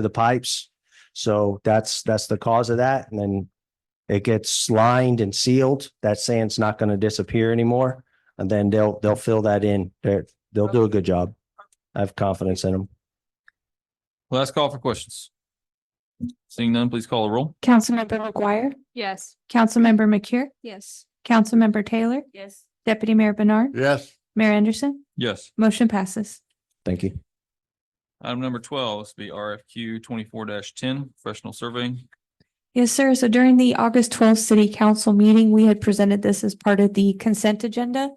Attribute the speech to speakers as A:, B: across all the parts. A: to the pipes. So that's, that's the cause of that. And then it gets lined and sealed. That sand's not going to disappear anymore. And then they'll, they'll fill that in. They're, they'll do a good job. I have confidence in them.
B: Last call for questions. Seeing none, please call a roll.
C: Councilmember McGuire,
D: Yes.
C: Councilmember McCure,
D: Yes.
C: Councilmember Taylor,
D: Yes.
C: Deputy Mayor Bernard,
E: Yes,
C: Mayor Anderson,
B: Yes.
C: motion passes.
A: Thank you.
B: Item number twelve, this will be RFQ twenty-four ten, professional surveying.
C: Yes, sir. So during the August twelfth city council meeting, we had presented this as part of the consent agenda.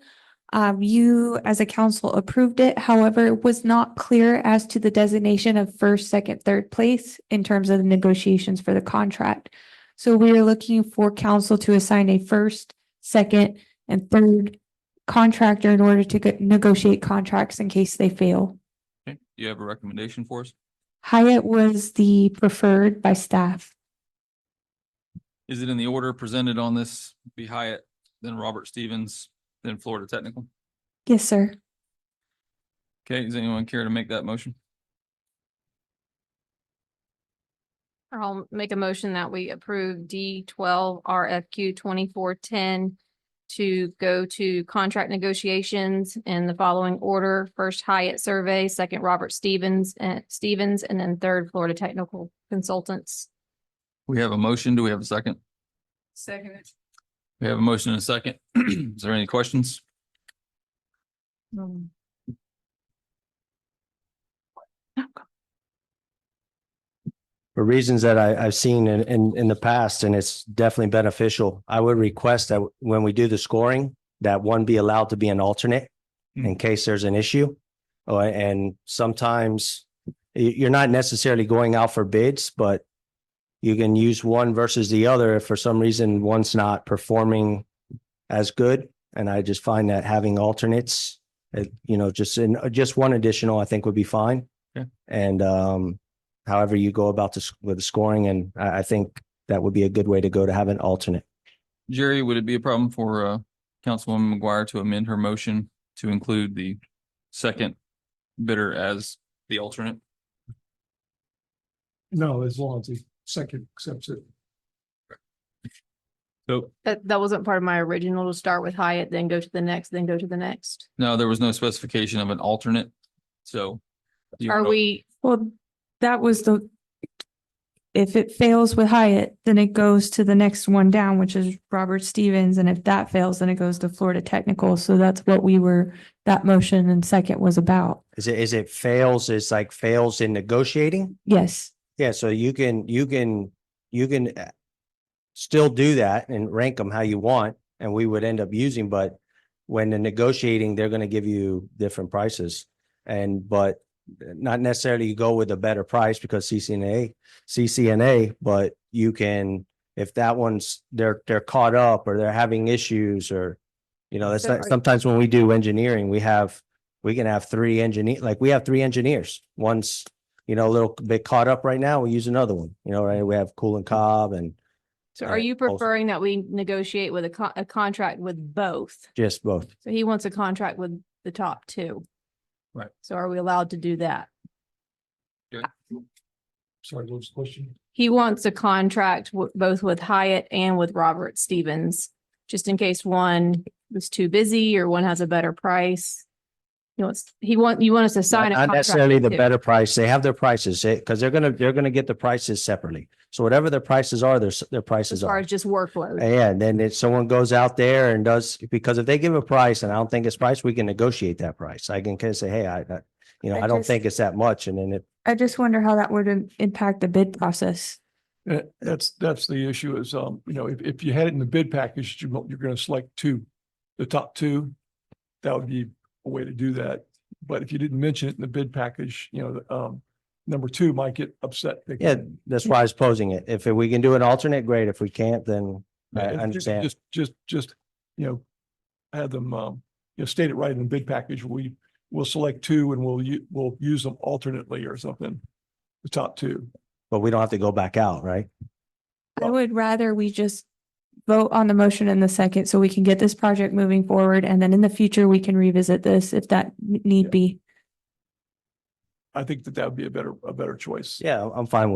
C: Um, you as a council approved it. However, it was not clear as to the designation of first, second, third place in terms of the negotiations for the contract. So we are looking for council to assign a first, second, and third contractor in order to go- negotiate contracts in case they fail.
B: Okay, do you have a recommendation for us?
C: Hyatt was the preferred by staff.
B: Is it in the order presented on this? Be Hyatt, then Robert Stevens, then Florida Technical.
C: Yes, sir.
B: Okay, does anyone care to make that motion?
D: I'll make a motion that we approve D twelve RFQ twenty-four ten to go to contract negotiations in the following order. First Hyatt Survey, second Robert Stevens and Stevens, and then third Florida Technical Consultants.
B: We have a motion. Do we have a second?
D: Second.
B: We have a motion and a second. Is there any questions?
A: for reasons that I, I've seen in, in, in the past, and it's definitely beneficial. I would request that when we do the scoring, that one be allowed to be an alternate in case there's an issue. Uh, and sometimes you, you're not necessarily going out for bids, but you can use one versus the other if for some reason one's not performing as good. And I just find that having alternates, uh, you know, just in, just one additional, I think would be fine.
B: Okay.
A: And, um, however you go about this with the scoring. And I, I think that would be a good way to go to have an alternate.
B: Jerry, would it be a problem for uh Councilwoman McGuire to amend her motion to include the second bidder as the alternate?
F: No, as long as the second accepts it.
B: So
D: That, that wasn't part of my original to start with Hyatt, then go to the next, then go to the next.
B: no, there was no specification of an alternate, so. do you
D: Are
B: wanna-
D: we,
C: Well, that was the, if it fails with Hyatt, then it goes to the next one down, which is Robert Stevens. And if that fails, then it goes to Florida Technical. So that's what we were, that motion and second was about.
A: Is it, is it fails, it's like fails in negotiating?
C: Yes.
A: Yeah, so you can, you can, you can uh, still do that and rank them how you want, and we would end up using, but when they're negotiating, they're gonna give you different prices. And, but uh, not necessarily you go with a better price because CCNA, CCNA, but you can, if that one's, they're, they're caught up or they're having issues or, you know, that's,
D: So
A: not-
D: are-
A: sometimes when we do engineering, we have, we can have three engineer, like, we have three engineers. One's you know, a little bit caught up right now, we use another one, you know, right? We have Cool and Cobb and
D: so
A: Uh,
D: are you
A: also-
D: preferring that we negotiate with a con- a contract with both?
A: just both.
D: So he wants a contract with the top two.
B: Right.
D: So are we allowed to do that?
F: Sorry, what was the question?
D: He wants a contract wi- both with Hyatt and with Robert Stevens, just in case one was too busy or one has a better price. He wants, he want, you want us to sign a
A: Not
D: contract.
A: necessarily the
D: too.
A: better price, they have their prices, because they're gonna, they're gonna get the prices separately. So whatever their prices are, their, s- their
D: As
A: prices
D: far
A: are.
D: as just workload.
A: Yeah, and then if someone goes out there and does, because if they give a price and I don't think it's price, we can negotiate that price. I can kind of say, hey, I, I- you know,
C: I
A: I don't
C: just-
A: think it's that much, and then it,
C: I just wonder how that would im- impact the bid process.
F: Uh, that's, that's the issue is, um, you know, if, if you had it in the bid package, you, mo- you're gonna select two, the top two. That would be a way to do that. But if you didn't mention it in the bid package, you know, um, number two might get upset. thinking-
A: yeah, that's why I was posing it. If we can do an alternate, great. If we can't, then I
F: Yeah, if you could
A: understand.
F: Just, just, just, you know, have them, um, you know, state it right in the bid package. We will select two and we'll, u- we'll use them alternately or something. The top two.
A: but we don't have to go back out, right?
C: I would rather we just vote on the motion in the second so we can get this project moving forward. And then in the future, we can revisit this if that need be.
F: I think that that would be a better, a better choice.
A: Yeah, I'm fine with